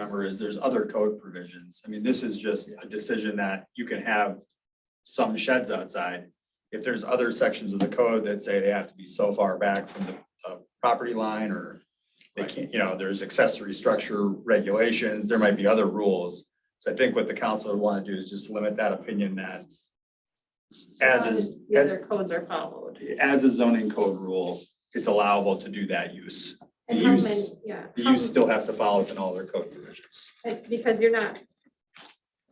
remember is there's other code provisions. I mean, this is just a decision that you can have some sheds outside. If there's other sections of the code that say they have to be so far back from the uh, property line or they can't, you know, there's accessory structure regulations, there might be other rules. So I think what the council would want to do is just limit that opinion that as is, The other codes are followed. as a zoning code rule, it's allowable to do that use. The And how use- many, yeah. The how use many- still has to follow within all their code provisions. like, Because you're not,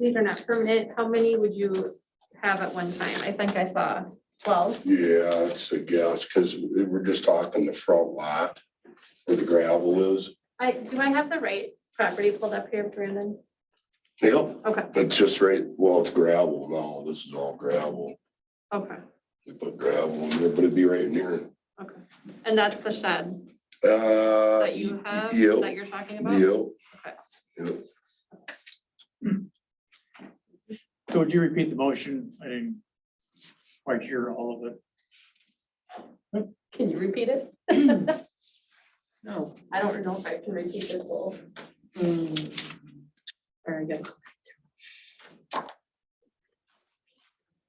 these are not permanent. How many would you have at one time? I think I saw twelve. Yeah, it's a guess, because we're just talking the front lot where the gravel is. I, do I have the right property pulled up here, Brandon? Yep. Okay, It's just right, well, it's gravel now. This is all gravel. okay, They put gravel in there, but it'd be right in here. okay. And that's the shed Uh. that you have, that Yep, you're talking about? yep. Okay. Yep. So would you repeat the motion? I didn't quite hear all of it. Can you repeat it? No, I don't know if I can repeat this whole. Hmm. Very good.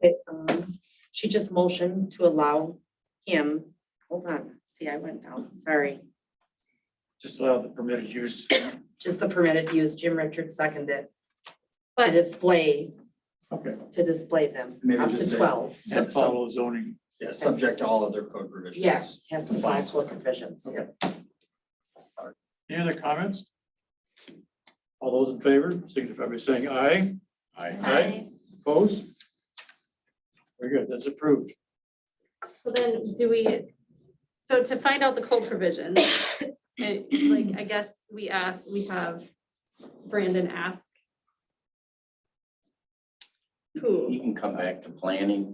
It, um, she just motioned to allow him, hold on, see, I went down, sorry. Just allow the permitted use. Just the permitted use, Jim Richards seconded, to But- display, Okay. to display them, Maybe up just to say- twelve. And follow zoning. Yeah, subject to all other code provisions. Yeah, has some flexible provisions. Okay. Any other comments? All those in favor, signify by saying aye. Aye. Opposed? Very good. That's approved. So then do we, so to find out the code provisions, and like, I guess we ask, we have Brandon ask. You Who can come back to planning.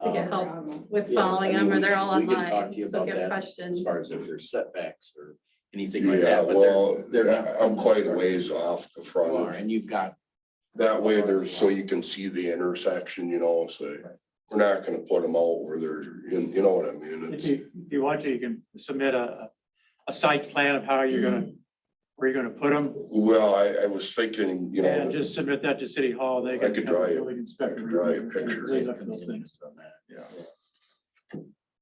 to get um, help with Yes, following I mean, them or we they're can- all we can talk to you online, so about if you have that as questions. As far as if there's setbacks or anything like Yeah, that, but well, they're, they're not. I'm quite a ways off the You are, front. and you've got, That way there's, so you can see the intersection, you know, so we're not gonna put them out where they're, you you know what I mean? If It's, you, if you want to, you can submit a, a site plan of how you're gonna, where you're gonna put them. well, I, I was thinking, you know. And that- just submit that to City Hall. They I can. could have the draw you- building inspector I could draw you a review and picture. They look at those things. Yeah.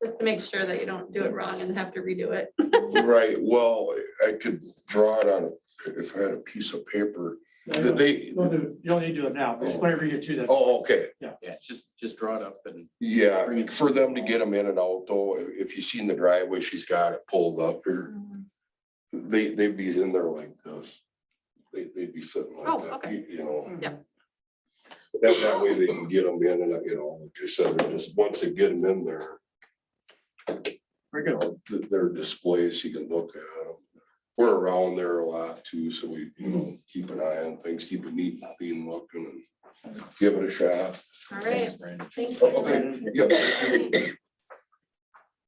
Just to make sure that you don't do it wrong and have to redo it. Right, well, I could draw it on, a- if I had a piece of paper, that they, Don't do- You don't need to do it now, just whenever you get to that. oh, okay, yeah, just, just draw it up and. Bring yeah, it. for them to get them in and out though, i- if you seen the driveway, she's got it pulled up here. Mm-hmm. They, they'd be in there like this. They, they'd be sitting Oh, like that, okay. you- you know. Mm. Yep. That, that way they can get them in and, you know, like I said, they're just, once they get them in there, Very you good. know, th- there are displays, you can look at them. We're around there a lot too, so we, you know, keep an eye on things, keep a neat, clean look and give it a shot. All right, Thanks, Brandon. thanks. Oh, okay. Yep.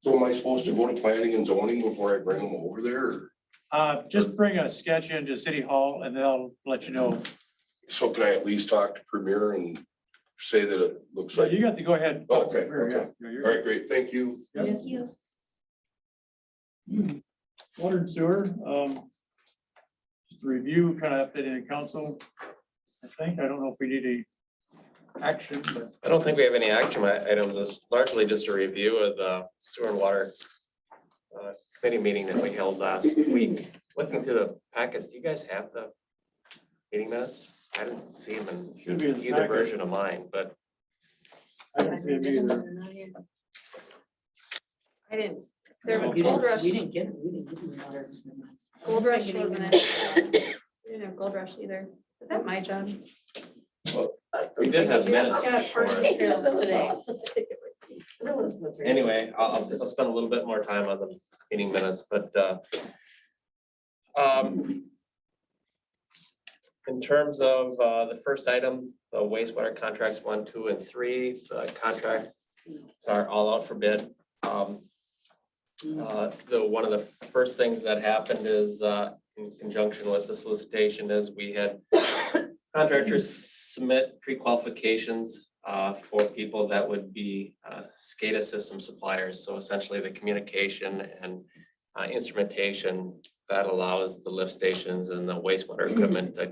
So am I supposed to go to planning and zoning before I bring them over there? or- Uh, just bring a sketch into City Hall and they'll let you know. So can I at least talk to Premier and say that it looks So like, you got to go ahead. and talk to Okay, Mary, yeah. okay. Yeah, all you're- right, great, thank you. Thank you. Water and sewer, um, just a review kind of updating the council. I think, I don't know if we need any action, but I don't think we have any action i- items. It's largely just a review of the sewer and water uh, committee meeting that we held last week. Looking through the packets, do you guys have the meeting minutes? I didn't see them should be in in the either packet. version of mine, but I didn't see it either. I didn't, there So was You gold didn't, rush, you didn't get it, we didn't give them water. gold rush wasn't it? We didn't have gold rush either. Is that my job? we did have Yeah, minutes. for first it. materials today. Anyway, I'll, I'll- I'll spend a little bit more time on the meeting minutes, but uh, um, in terms of uh, the first item, the wastewater contracts one, two, and three, the contract are all out for bid. Um, uh, The, one of the first things that happened is, uh, in conjunction with the solicitation, is we had contractors submit pre-qualifications uh, for people that would be uh, SCADA system suppliers. So essentially the communication and uh, instrumentation that allows the lift stations and the wastewater equipment to